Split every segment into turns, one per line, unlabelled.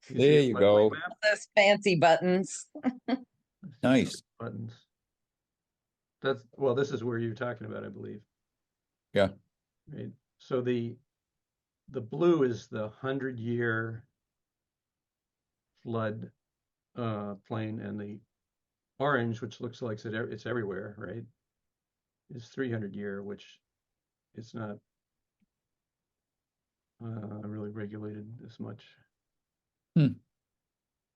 She's
There
used
you
my
go.
map
Those fancy buttons.
Nice.
Buttons. That's, well, this is where you're talking about, I believe.
Yeah.
Right, so the, the blue is the hundred year flood, uh, plain and the orange, which looks like it's, ev- it's everywhere, right? Is three hundred year, which it's not uh, really regulated as much.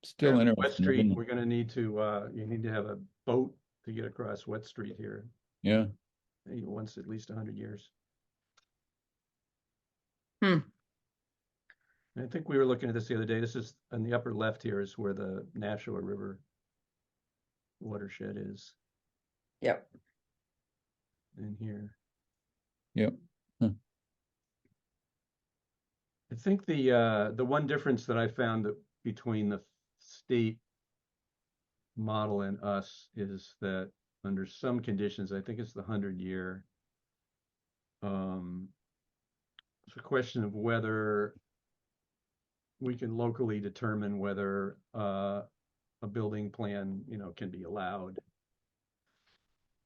Still
And
interesting.
Wet Street,
isn't
we're
it?
gonna need to, uh, you need to have a boat to get across Wet Street here,
Yeah,
eh, once at least hundred years.
Hmm.
I think we were looking at this the other day, this is, in the upper left here is where the Nashua River watershed is,
Yep.
in here.
Yep. Hmm.
I think the, uh, the one difference that I found that between the state model and us is that under some conditions, I think it's the hundred year. Um, it's a question of whether we can locally determine whether, uh, a building plan, you know, can be allowed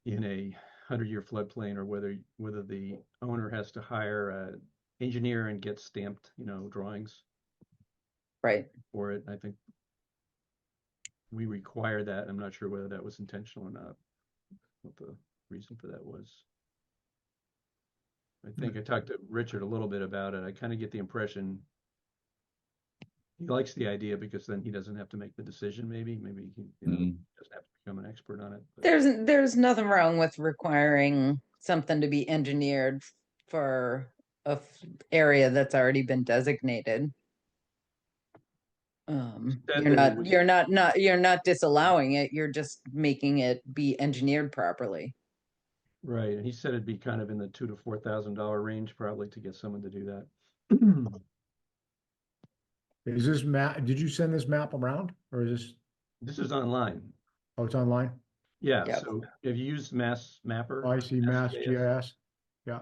in a hundred-year floodplain or whether, whether the owner has to hire a engineer and get stamped, you know, drawings
Right.
for it. I think we require that. I'm not sure whether that was intentional or not, what the reason for that was. I think I talked to Richard a little bit about it. I kind of get the impression he likes the idea because then he doesn't have to make the decision, maybe. Maybe he you know,
Mm.
doesn't have to become an expert on it. but-
There's there's nothing wrong with requiring something to be engineered for a f- area that's already been designated. Um,
Said
you're
that it
not
was-
you're not not you're not disallowing it. You're just making it be engineered properly.
Right, and he said it'd be kind of in the two to four thousand dollar range probably to get someone to do that.
Is this map, did you send this map around or is this,
This is online.
oh, it's online?
Yeah,
Yep.
so if you use Mass
Oh,
Mapper,
I see Mass
yes.
GIS. Yeah,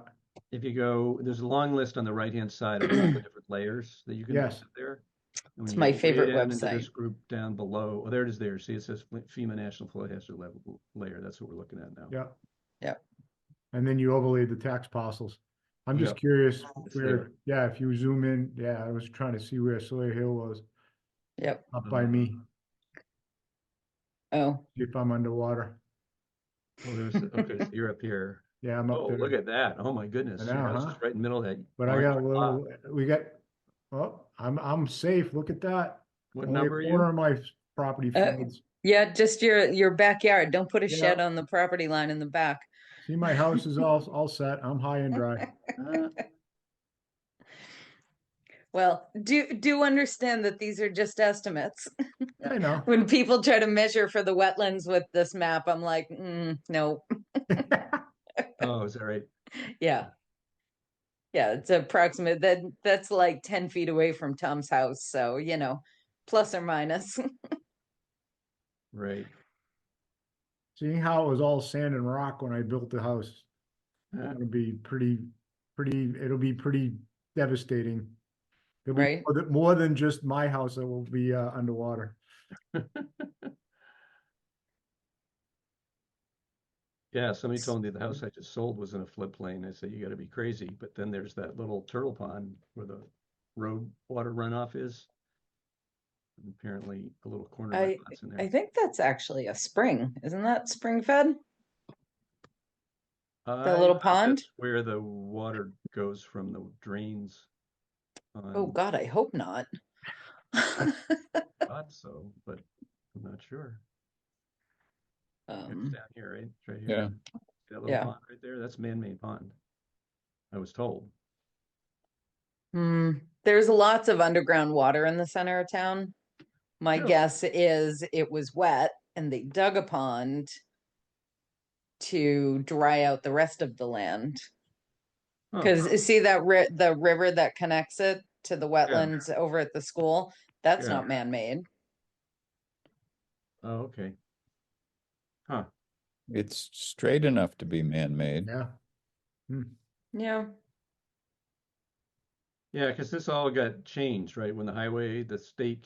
if you go, there's a long list on the right-hand side of all the different layers that you can
Yes.
visit there. And when
It's
you
my
go way
favorite
down into this
website.
Group down below, oh, there it is there. See, it says Fle- FEMA National Flood Hazard Level Layer. That's what we're looking at now.
yeah.
Yeah.
And then you overlay the tax parcels. I'm just
Yeah.
curious
It's there.
where, yeah, if you zoom in, yeah, I was trying to see where Sawyer Hill was
Yep.
up by
Mm-hmm.
me,
Oh,
see if I'm underwater.
Oh, there's, okay, so you're up here.
Yeah, I'm
Oh,
up
look
there.
at that. Oh, my goodness.
I
Your
know,
house
huh?
is right in the middle of that.
But I
orange
got a
block.
little, we got, oh, I'm, I'm safe. Look at that.
What
Only a
number are you?
Corner of my property
Uh,
fields.
yeah, just your your backyard. Don't put a
Yeah.
shed on the property line in the back.
See, my house is all, all set. I'm high and dry.
Ah,
Well, do do understand that these are just estimates.
I know.
when people try to measure for the wetlands with this map, I'm like, mm, no,
Oh, is that right?
yeah. Yeah, it's approximate. That that's like 10 feet away from Tom's house. So, you know, plus or minus.
Right.
Seeing how it was all sand and rock when I built the house,
Ah,
it'll be pretty, pretty, it'll be pretty devastating. There'll be
Right.
more than- More than just my house that will be uh, underwater.
Yeah, somebody told me the house I just sold was in a floodplain. I said, you gotta be crazy. But then there's that little turtle pond where the road water runoff is. And Apparently, a little corner
I-
of that's in
I
there.
think that's actually a spring. Isn't that spring fed?
I
little
think
pond?
that's Where the water goes from the drains.
Oh
on-
god, I hope not.
Thought so, but I'm not sure. It's
um,
down here, right? It's Right here.
yeah.
That little
Yeah.
pond right there, that's man-made pond. I was told.
hmm, there's lots of underground water in the center of town. My
Really?
guess is it was wet and they dug a pond to dry out the rest of the land.
Huh.
Because uh, see that ri- the river that connects it to the wetlands over at the school, that's
Yeah.
not man-made.
Oh, okay.
It's straight enough to be man-made.
Yeah.
Yeah.
Yeah, because this all got changed, right? When the highway, the state